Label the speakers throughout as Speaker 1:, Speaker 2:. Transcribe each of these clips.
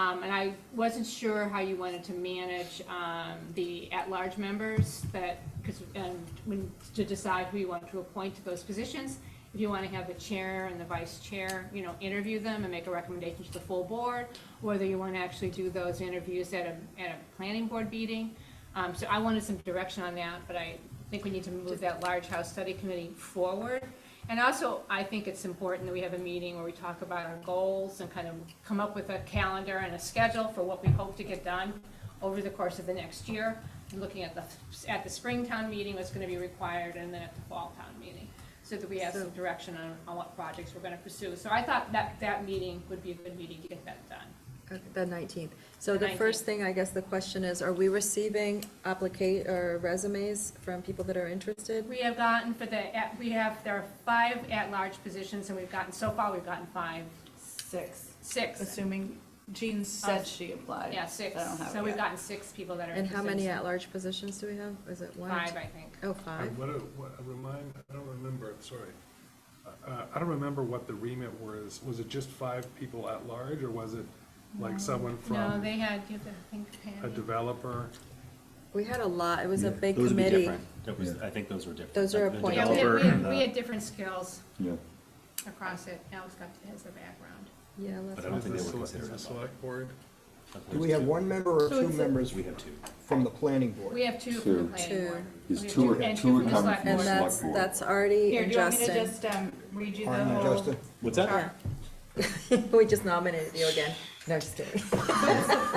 Speaker 1: Um, and I wasn't sure how you wanted to manage, um, the at-large members that, because, and when, to decide who you want to appoint to those positions. If you want to have the chair and the vice chair, you know, interview them and make a recommendation to the full board, whether you want to actually do those interviews at a, at a planning board meeting. Um, so I wanted some direction on that, but I think we need to move that large house study committee forward. And also, I think it's important that we have a meeting where we talk about our goals and kind of come up with a calendar and a schedule for what we hope to get done over the course of the next year. Looking at the, at the spring town meeting, what's gonna be required, and then at the fall town meeting, so that we have some direction on, on what projects we're gonna pursue. So I thought that, that meeting would be a good meeting to get that done.
Speaker 2: Okay, Uh, The nineteenth. So
Speaker 1: The
Speaker 2: the first
Speaker 1: 19th.
Speaker 2: thing, I guess the question is, are we receiving applicate, or resumes from people that are interested?
Speaker 1: We have gotten for the, at- we have, there are five at-large positions, and we've gotten, so far, we've gotten five,
Speaker 3: Six,
Speaker 1: six,
Speaker 3: assuming Jean said she applied.
Speaker 1: yeah, six.
Speaker 3: I don't have
Speaker 1: So
Speaker 3: it
Speaker 1: we've
Speaker 3: yet.
Speaker 1: gotten six people that are
Speaker 2: And
Speaker 1: interested.
Speaker 2: how many at-large positions do we have? Is it one?
Speaker 1: Five, I think.
Speaker 2: Oh,
Speaker 4: I-
Speaker 2: five.
Speaker 4: What, do- what, I remind, I don't remember, I'm sorry. Uh, I don't remember what the remit was. Was it just five people at large, or was it like someone
Speaker 1: No,
Speaker 4: from
Speaker 1: they had, you have to think,
Speaker 4: a
Speaker 1: Patty.
Speaker 4: developer?
Speaker 2: We had a lot. It was a
Speaker 5: Yeah,
Speaker 2: big
Speaker 5: those would be
Speaker 2: committee.
Speaker 5: different. That was, I think those were different.
Speaker 2: Those are
Speaker 5: The
Speaker 2: appointed.
Speaker 1: Yeah, we had-
Speaker 5: developer Uh,
Speaker 1: we
Speaker 5: and
Speaker 1: had, we
Speaker 5: the-
Speaker 1: had different skills
Speaker 5: Yeah,
Speaker 1: across it. Alex got, has the background.
Speaker 2: Yeah,
Speaker 5: But
Speaker 2: let's,
Speaker 5: I don't
Speaker 4: Is
Speaker 5: think
Speaker 4: the
Speaker 5: they were
Speaker 4: sele-
Speaker 5: considered
Speaker 4: is the
Speaker 5: at
Speaker 4: select board?
Speaker 5: Of
Speaker 6: Do we
Speaker 5: those
Speaker 6: have
Speaker 5: two.
Speaker 6: one member or two members
Speaker 5: We have two.
Speaker 6: from the planning
Speaker 1: We
Speaker 6: board?
Speaker 1: have two from the
Speaker 5: Two.
Speaker 1: planning board.
Speaker 5: Is
Speaker 1: We have
Speaker 5: two-
Speaker 1: and
Speaker 5: two
Speaker 1: from the
Speaker 5: come
Speaker 1: select
Speaker 5: from
Speaker 2: and
Speaker 1: board.
Speaker 2: that's,
Speaker 5: board.
Speaker 2: that's Artie
Speaker 3: Here,
Speaker 2: and
Speaker 3: do you want me to
Speaker 2: Justin.
Speaker 3: just, um, read you the
Speaker 6: Arnie and
Speaker 3: whole?
Speaker 6: Justin?
Speaker 5: What's that?
Speaker 3: chart?
Speaker 2: We just nominated you again. No, just kidding.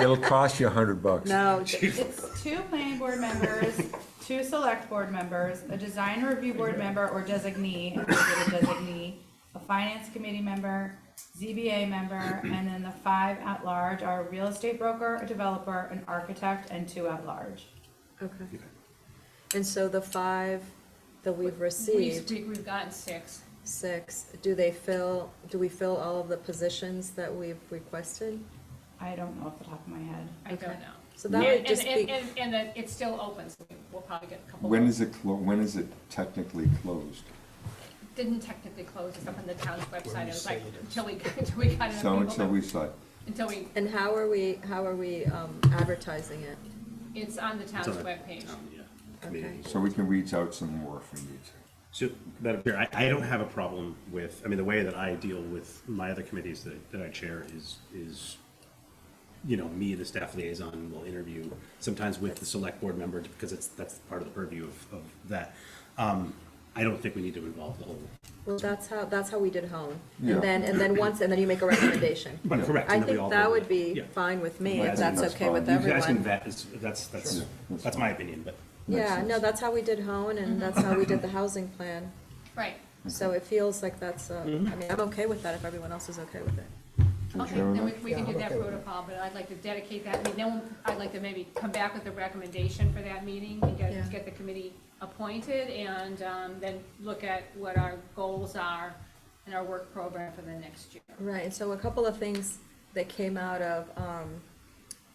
Speaker 5: It'll cost you a hundred bucks.
Speaker 2: No,
Speaker 3: It's two planning board members, two select board members, a design review board member or designee, if we did a designee, a finance committee member, ZBA member, and then the five at large are a real estate broker, a developer, an architect, and two at large.
Speaker 2: okay. And so the five that we've
Speaker 1: We've,
Speaker 2: received,
Speaker 1: we- we've gotten six.
Speaker 2: six, do they fill, do we fill all of the positions that we've requested?
Speaker 3: I don't know off the top of my head.
Speaker 1: I don't
Speaker 2: Okay.
Speaker 1: know.
Speaker 2: So that
Speaker 1: And-
Speaker 2: would just
Speaker 1: and-
Speaker 2: be,
Speaker 1: And, and, and it's still open, so we'll probably get a couple.
Speaker 7: When
Speaker 1: more.
Speaker 7: is it, clo- when is it technically closed?
Speaker 1: Didn't technically close, it's up on the town's website, it was like, until we, until we got
Speaker 7: So
Speaker 1: enough
Speaker 7: and so
Speaker 1: people.
Speaker 7: we said,
Speaker 1: Until we,
Speaker 2: and how are we, how are we um, advertising it?
Speaker 1: it's on the town's
Speaker 5: It's on the
Speaker 1: webpage.
Speaker 5: Um, yeah, community.
Speaker 7: so we can reach out some more if we need to.
Speaker 5: So, Madam Chair, I, I don't have a problem with, I mean, the way that I deal with my other committees that, that I chair is, is, you know, me, the staff liaison, will interview, sometimes with the select board member, because it's, that's part of the purview of, of that. Um, I don't think we need to involve the whole,
Speaker 2: Well, that's how, that's how we did home.
Speaker 7: Yeah.
Speaker 2: And then, and then once, and then you make a recommendation.
Speaker 5: but correct.
Speaker 2: I
Speaker 5: and then we
Speaker 2: think
Speaker 5: all
Speaker 2: that
Speaker 5: vote.
Speaker 2: would be
Speaker 5: Yeah.
Speaker 2: fine with me,
Speaker 7: Yeah,
Speaker 2: if
Speaker 7: I think
Speaker 2: that's
Speaker 7: that's
Speaker 2: okay with
Speaker 7: fine.
Speaker 5: You guys can
Speaker 2: everyone.
Speaker 5: vet, it's- that's, that's,
Speaker 7: Sure.
Speaker 5: that's my opinion, but.
Speaker 7: Makes
Speaker 2: Yeah, no,
Speaker 7: sense.
Speaker 2: that's how we did hone, and that's how we did
Speaker 5: Mm-hmm.
Speaker 2: the housing plan.
Speaker 1: Right,
Speaker 2: So it feels like that's, uh, I
Speaker 1: Mm-hmm.
Speaker 2: mean, I'm okay with that if everyone else is okay with it.
Speaker 7: Is
Speaker 1: okay,
Speaker 7: there
Speaker 1: then we,
Speaker 7: enough?
Speaker 1: we can
Speaker 6: Yeah,
Speaker 1: do
Speaker 6: I'm
Speaker 1: that
Speaker 6: okay with that.
Speaker 1: protocol, but I'd like to dedicate that, I mean, then I'd like to maybe come back with a recommendation for that meeting and
Speaker 2: Yeah.
Speaker 1: get, get the committee appointed and, um, then look at what our goals are and our work program for the next year.
Speaker 2: Right, and so a couple of things that came out of, um,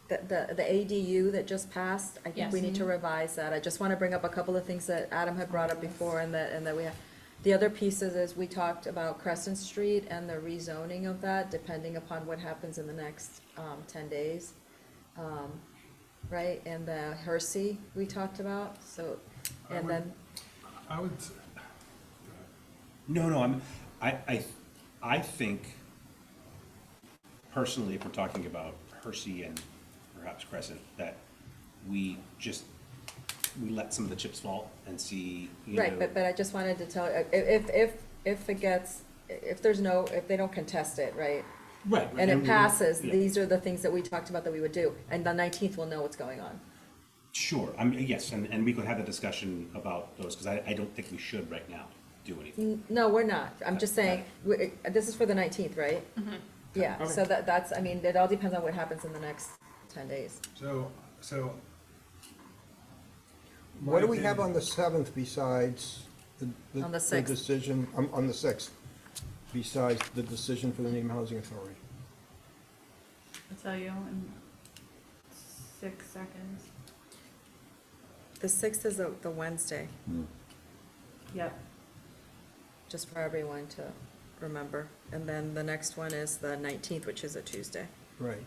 Speaker 2: the, the, the ADU that just passed, I think we
Speaker 1: Yes.
Speaker 2: need to revise that. I just wanna bring up a couple of things that Adam had brought up before and that, and that we have. The other pieces is we talked about Crescent Street and the rezoning of that, depending upon what happens in the next, um, ten days. Um, Right, and the Hersey we talked about, so,
Speaker 4: I
Speaker 2: and
Speaker 4: would-
Speaker 2: then,
Speaker 4: I would, s-
Speaker 5: No, no, I'm, I, I, I think personally, if we're talking about Hersey and perhaps Crescent, that we just, we let some of the chips fall and see, you know.
Speaker 2: right, but, but I just wanted to tell, if, if, if, if it gets, if there's no, if they don't contest it, right?
Speaker 5: Right. right,
Speaker 2: and it
Speaker 5: we-
Speaker 2: passes,
Speaker 5: yeah.
Speaker 2: these are the things that we talked about that we would do, and the nineteenth we'll know what's going on.
Speaker 5: Sure, I mean, yes, and, and we could have a discussion about those, because I, I don't think we should right now do anything.
Speaker 2: N- No, we're not, I'm just saying, we- uh, this is for the nineteenth, right? Yeah, so that, that's, I mean, it all depends on what happens in the next ten days.
Speaker 4: so, so.
Speaker 6: What do we
Speaker 4: my
Speaker 6: have on
Speaker 4: opinion-
Speaker 6: the seventh besides the, the
Speaker 2: On the
Speaker 6: the
Speaker 2: sixth.
Speaker 6: decision, um, on, on the sixth? Besides the decision for the Needham Housing Authority?
Speaker 3: I'll tell you in six seconds.
Speaker 2: The sixth is the, the Wednesday,
Speaker 3: Yep.
Speaker 2: just for everyone to remember, and then the next one is the nineteenth, which is a Tuesday.
Speaker 6: Right.